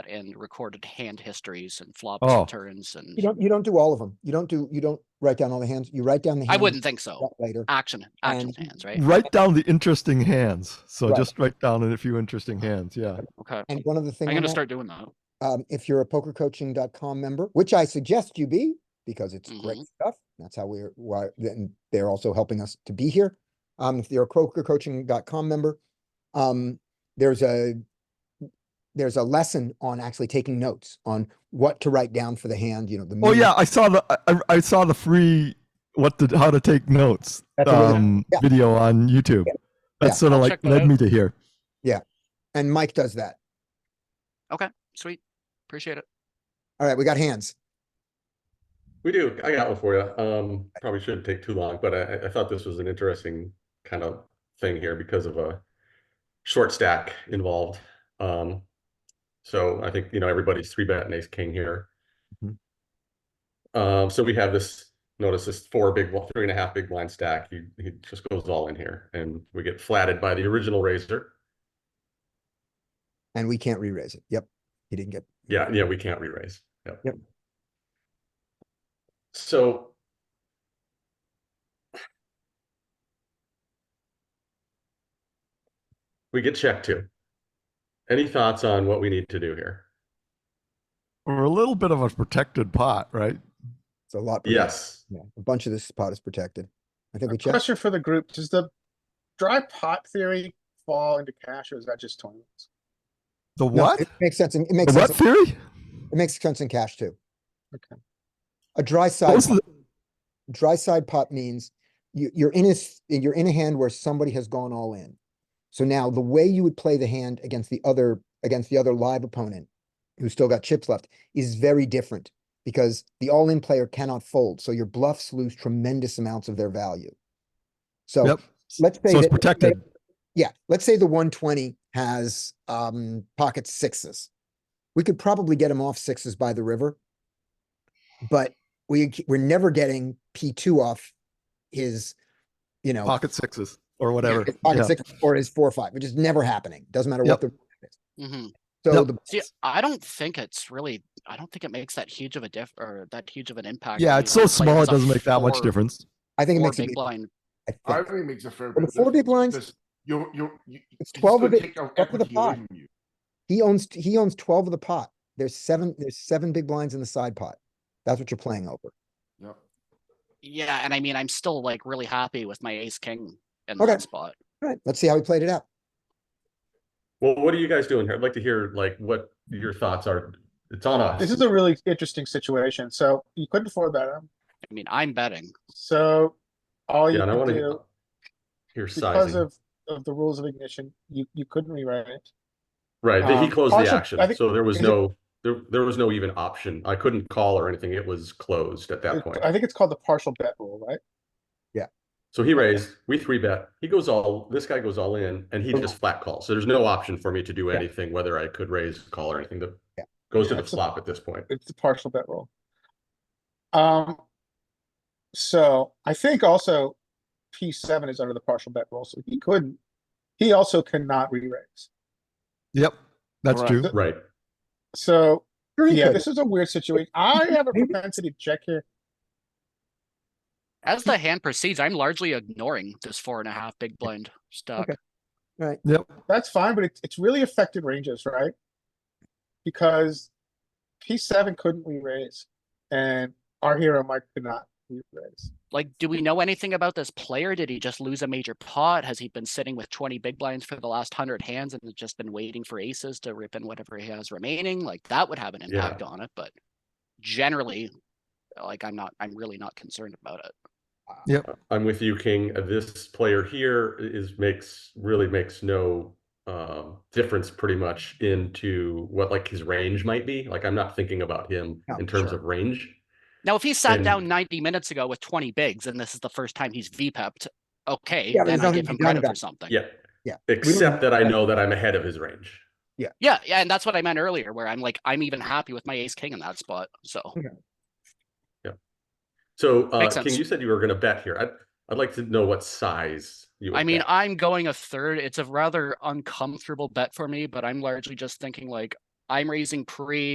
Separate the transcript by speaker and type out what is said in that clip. Speaker 1: and recorded hand histories and flops
Speaker 2: Oh.
Speaker 1: and turns and
Speaker 3: You don't, you don't do all of them. You don't do, you don't write down all the hands. You write down the.
Speaker 1: I
Speaker 3: hands
Speaker 1: wouldn't think
Speaker 3: you
Speaker 1: so.
Speaker 3: got Later.
Speaker 1: Action, action
Speaker 3: And-
Speaker 1: hands, right?
Speaker 2: Write down the interesting hands. So
Speaker 3: Right.
Speaker 2: just write down a few interesting hands. Yeah.
Speaker 1: Okay.
Speaker 3: And one other thing,
Speaker 1: I'm
Speaker 3: on
Speaker 1: gonna
Speaker 3: that,
Speaker 1: start doing that.
Speaker 3: um, if you're a pokercoaching.com member, which I suggest you be, because it's great
Speaker 1: Mhm.
Speaker 3: stuff. That's how we're, why, then they're also helping us to be here. Um, if you're a pokercoaching.com member, um, there's a, there's a lesson on actually taking notes on what to write down for the hand, you know, the.
Speaker 2: Oh
Speaker 3: minimum-
Speaker 2: yeah, I saw the I- I, I saw the free what to how to take notes
Speaker 3: That's a really-
Speaker 2: um,
Speaker 3: yeah.
Speaker 2: video on YouTube.
Speaker 3: Yeah.
Speaker 2: That
Speaker 3: Yeah.
Speaker 2: sort of
Speaker 1: I'll
Speaker 2: like
Speaker 1: check that
Speaker 2: led
Speaker 1: out.
Speaker 2: me to here.
Speaker 3: And Mike does that.
Speaker 1: Sweet. Appreciate it.
Speaker 3: All right, we got hands.
Speaker 4: We do. I got one for you. Um, probably shouldn't take too long, but I, I- I thought this was an interesting kind of thing here because of a short stack involved. Um, so I think, you know, everybody's three bet and ace king here.
Speaker 3: Mhm.
Speaker 4: Um, so we have this, notice this four big, bl- three and a half big blind stack. He, he just goes all in here and we get flatted by the original razor.
Speaker 3: And we can't re-raise it. Yep. He didn't get,
Speaker 4: Yeah, yeah, we can't re-raise. Yep.
Speaker 3: Yep.
Speaker 4: So. We get checked too. Any thoughts on what we need to do here?
Speaker 2: We're a little bit of a protected pot, right?
Speaker 3: it's a lot. protected.
Speaker 4: Yes,
Speaker 3: Yeah, a bunch of this pot is protected. I think we checked.
Speaker 5: Question for the group, does the dry pot theory fall into cash or is that just tournaments?
Speaker 2: The
Speaker 3: No,
Speaker 2: what?
Speaker 3: It makes sense. in- It
Speaker 2: The
Speaker 3: makes sense.
Speaker 2: what
Speaker 3: in-
Speaker 2: theory?
Speaker 3: It makes sense in cash too.
Speaker 5: Okay.
Speaker 3: A dry
Speaker 2: What
Speaker 3: side,
Speaker 2: was the,
Speaker 3: dry side pot means you, you're in a, s- you're in a hand where somebody has gone all in. So now the way you would play the hand against the other, against the other live opponent who's still got chips left is very different because the all-in player cannot fold. So your bluffs lose tremendous amounts of their value. So
Speaker 2: yep.
Speaker 3: let's say
Speaker 2: So it's
Speaker 3: that- let's say-
Speaker 2: protected.
Speaker 3: Yeah, let's say the one twenty has um pocket sixes. We could probably get him off sixes by the river. But we we're never getting P two off his, you know,
Speaker 2: Pocket sixes or whatever.
Speaker 3: his pocket
Speaker 2: Yeah.
Speaker 3: six or his four five, which is never happening. Doesn't matter what the
Speaker 1: hmm
Speaker 3: so
Speaker 2: Yep.
Speaker 3: the
Speaker 1: See, I don't think it's really, I don't think it makes that huge of a diff or that huge of an impact.
Speaker 2: Yeah,
Speaker 1: when
Speaker 2: it's
Speaker 1: you
Speaker 2: so
Speaker 1: only play
Speaker 2: small it
Speaker 1: against a
Speaker 2: doesn't make that much
Speaker 1: four-
Speaker 2: difference.
Speaker 3: I think it
Speaker 1: four
Speaker 3: makes a
Speaker 1: big
Speaker 3: big-
Speaker 1: blind.
Speaker 3: I think.
Speaker 6: I think it makes a fair. bit
Speaker 3: Well, the four big blinds-
Speaker 6: You're, you're. you-
Speaker 3: It's
Speaker 6: you
Speaker 3: 12 of
Speaker 6: still
Speaker 3: it
Speaker 6: take out
Speaker 3: up to the
Speaker 6: equity away
Speaker 3: pot.
Speaker 6: from you.
Speaker 3: He owns he owns twelve of the pot. There's seven there's seven big blinds in the side pot. That's what you're playing over.
Speaker 6: Yep.
Speaker 1: Yeah, and I mean, I'm still like really happy with my ace king in
Speaker 3: Okay.
Speaker 1: that spot.
Speaker 3: All right, let's see how he played it out.
Speaker 4: well, what are you guys doing here? I'd like to hear like what your thoughts are. It's on us.
Speaker 5: This is a really interesting situation, so you couldn't afford that, um,
Speaker 1: I mean, I'm betting.
Speaker 5: so all you
Speaker 4: Yeah, and I
Speaker 5: could
Speaker 4: wanna
Speaker 5: do,
Speaker 4: hear- hear
Speaker 5: because
Speaker 4: sizing.
Speaker 5: of, of the rules of ignition, you, you couldn't rewrite it.
Speaker 4: Right, that he
Speaker 5: um,
Speaker 4: closed the
Speaker 5: also, I
Speaker 4: action,
Speaker 5: think-
Speaker 4: so there was
Speaker 5: is it-
Speaker 4: no, there, there was no even option. I couldn't call or anything. It was closed at that
Speaker 5: It-
Speaker 4: point.
Speaker 5: I think it's called the partial bet rule, right?
Speaker 4: So he raised, we three bet, he goes all, this guy goes all in and he just flat calls. So there's no option for me to do
Speaker 3: Yeah.
Speaker 4: anything, whether I could raise, call or anything that
Speaker 3: Yeah.
Speaker 4: goes to
Speaker 5: Yeah,
Speaker 4: the
Speaker 5: it's a-
Speaker 4: flop at this point.
Speaker 5: It's the partial bet rule. Um, so I think also P seven is under the partial bet rule, so he couldn't, he also cannot re-raise.
Speaker 2: Yep. That's
Speaker 5: Right.
Speaker 2: true.
Speaker 5: Th-
Speaker 4: Right.
Speaker 5: So
Speaker 3: Sure he
Speaker 5: Yeah,
Speaker 3: could.
Speaker 5: this is a weird situation. I have a
Speaker 3: Maybe-
Speaker 5: propensity to check here.
Speaker 1: As the hand proceeds, I'm largely ignoring this four and a half big blind stuck.
Speaker 3: Okay.
Speaker 2: Yep.
Speaker 5: That's fine, but it's, it's really affected ranges, right? Because P seven couldn't re-raise and our hero Mike could not re-raise.
Speaker 1: Like, do we know anything about this player? Did he just lose a major pot? Has he been sitting with 20 big blinds for the last 100 hands and has just been waiting for aces to rip in whatever he has remaining? Like, that would have an
Speaker 4: Yeah.
Speaker 1: impact on it, but generally, like, I'm not, I'm really not concerned about it.
Speaker 4: I'm with you, King. Uh, This player here is, makes, really makes no um, difference pretty much into what like his range might be. Like I'm not thinking about him
Speaker 3: No,
Speaker 4: in terms
Speaker 3: sure.
Speaker 4: of range.
Speaker 1: Now, if he sat
Speaker 4: And-
Speaker 1: down 90 minutes ago with 20 bigs and this is the first time he's VPEP'd, okay,
Speaker 3: Yeah, there's
Speaker 1: then I
Speaker 3: nothing
Speaker 1: give
Speaker 3: to
Speaker 1: him
Speaker 3: be done
Speaker 1: credit
Speaker 3: about
Speaker 1: for
Speaker 3: it.
Speaker 1: something.
Speaker 4: Yeah.
Speaker 3: Yeah.
Speaker 4: Except that I know that I'm ahead of his range.
Speaker 1: yeah, yeah, and that's what I meant earlier, where I'm like, I'm even happy with my ace king in that spot. So
Speaker 4: So, uh,
Speaker 1: Makes
Speaker 4: King,
Speaker 1: sense.
Speaker 4: you said you were gonna bet here. I'd, I'd like to know what size you.
Speaker 1: I
Speaker 4: would
Speaker 1: mean,
Speaker 4: bet.
Speaker 1: I'm going a third. It's a rather uncomfortable bet for me, but I'm largely just thinking like I'm raising pre